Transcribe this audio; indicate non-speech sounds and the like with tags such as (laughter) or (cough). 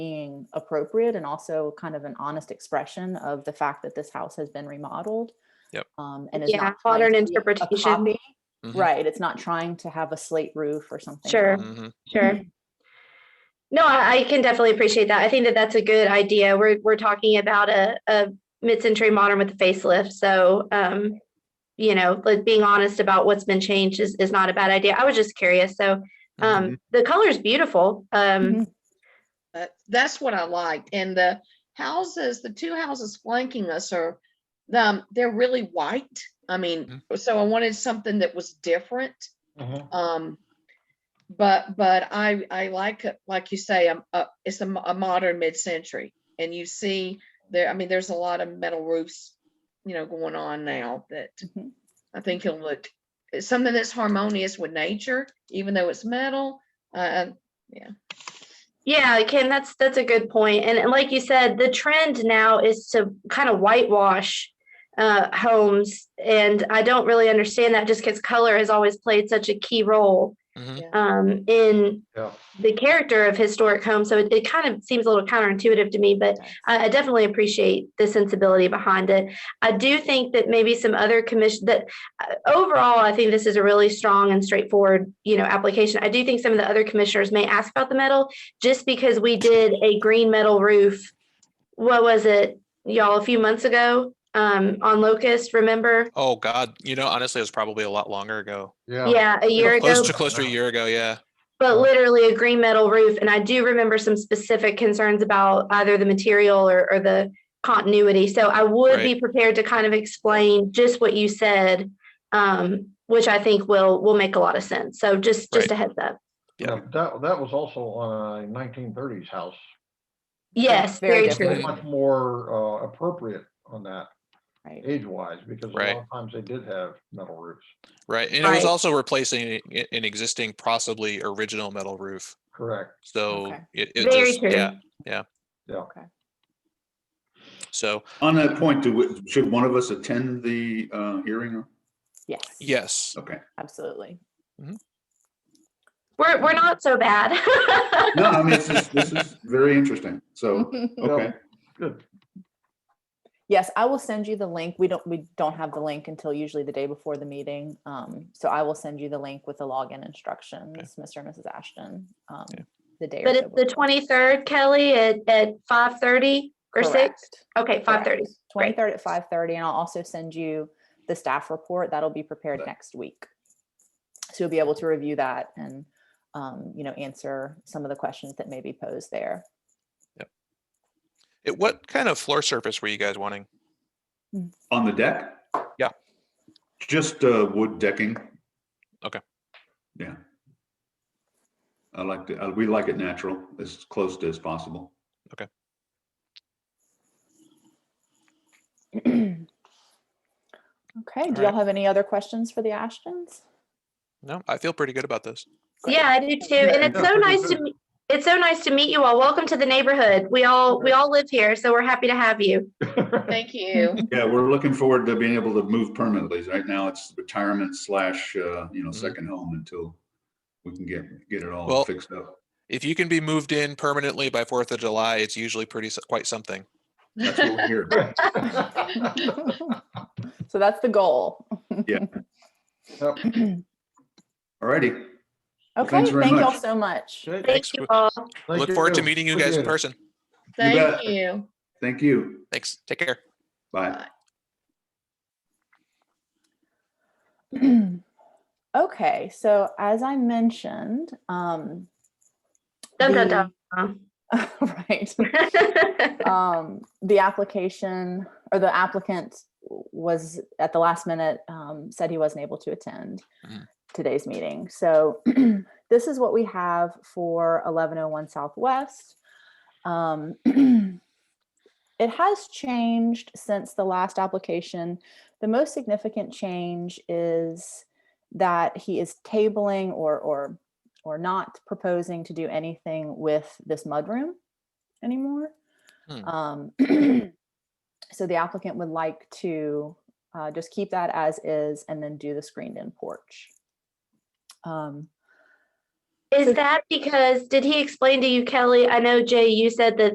something appropriate and also kind of an honest expression of the fact that this house has been remodeled. Yep. Um, and is Yeah, not trying to modern be a interpretation. copy. Mhm. Right, it's not trying to have a slate roof or something. Sure. Mhm. Sure. Mm-hmm. No, I, I can definitely appreciate that. I think that that's a good idea. We're, we're talking about a, a mid-century modern with a facelift. So, um, you know, like being honest about what's been changed is, is not a bad idea. I was just curious. So, mm-hmm, Mm-hmm. um, the color is beautiful. Um, But that's what I liked. And the houses, the two houses flanking us are, um, they're really white. I mean, so I wanted something that was different. Um, but, but I, I like, it- like you say, um, uh, it's a, mo- a modern mid-century. And you see there, I mean, there's a lot of metal roofs, you know, going on now that Mhm. I think it'll look, it's something that's harmonious with nature, even though it's metal. Uh, yeah, Kim, that's, that's a good point. And and like you said, the trend now is to kind of whitewash uh, homes. And I don't really understand that just because color has always played such a key role Mhm. um, in Yeah. the character of historic homes. So it, it kind of seems a little counterintuitive to me, but I, I definitely appreciate the sensibility behind it. I do think that maybe some other commission that uh, overall, I think this is a really strong and straightforward, you know, application. I do think some of the other commissioners may ask about the metal just because we did a green metal roof. What was it, y'all, a few months ago um, on Locust, remember? Oh God, you know, honestly, it was probably a lot longer ago. Yeah. Yeah, a year ago. Close to close to a year ago, yeah. But Oh. literally a green metal roof. And I do remember some specific concerns about either the material or, or the continuity. So I would be prepared to kind of explain just what you said, um, which I think will, will make a lot of sense. So just, just Right. a heads up. Yeah. Now, That, that was also on a nineteen thirties house. Yes, very very different. true. Much more uh, appropriate on that Right. age-wise, because a lot Right. of times they did have metal roofs, Right. And it was Right. also replacing i- an existing possibly original metal roof. correct? So Okay. it, it Very just, true. yeah. Yeah. Okay. So On that point, do, we- should one of us attend the uh, hearing? Yes. yes. Okay. Absolutely. (laughs) We're, we're not so bad. (laughs) No, I mean, this is, this is very interesting. (laughs) So, okay. Yeah, Good. (laughs) Yes, I will send you the link. We don't, we don't have the link until usually the day before the meeting. Um, so I will send you the link with the login instructions, Mr. and Mrs. Ashton. um, Yeah. The day. or But so it's the before. 23rd, Kelly, at, at 5:30 or 6? Correct. Okay, 5:30. Great. Twenty-third at five thirty, and I'll also send you the staff report. That'll be prepared Okay. next week. So you'll be able to review that and, um, you know, answer some of the questions that may be posed there. (clears throat) It, what kind of floor surface were you guys wanting? On the deck? Yeah. Just uh, wood decking. Okay. Yeah. I like it. uh, We like it natural, as close to as possible. Okay, do y'all Alright. have any other questions for the Ashtons? No, I feel pretty good about this. Yeah, I do too. And it's yeah, so pretty nice to, good. me- it's so nice to meet you all. Welcome to the neighborhood. We all, we all live here, so we're happy to have you. thank you. Yeah, we're looking forward to being able to move permanently. Right now, it's retirement slash, uh, you know, Mhm. second home until we can get, get it all Well- fixed up. If you can be moved in permanently by Fourth of July, it's usually pretty s- quite something. That's what we're here. So that's the goal. Yep. All righty. Well, Okay, thanks very thank y'all much. so much. Okay, Thank Thanks. you all. thank Look forward to you. meeting you guys in Appreciate it. person. Thank bet. you. Thank you. Thanks. Take care. Bye. (clears throat) Okay, so as I mentioned, um. (laughs) Dun, dun, the- dun. Right. (laughs) um, the application or the applicant w- was at the last minute, um, said he wasn't able to attend Mhm. today's meeting. So (clears throat) this is what we have for eleven oh one Southwest. Um, (clears throat) it has changed since the last application. The most significant change is that he is tabling or, or, or not proposing to do anything with this mudroom anymore. Hmm. Um, (clears throat) so the applicant would like to uh, just keep that as is and then do the screened in porch. Um, Is that because, did he explain to you, Kelly? I know Jay, you said that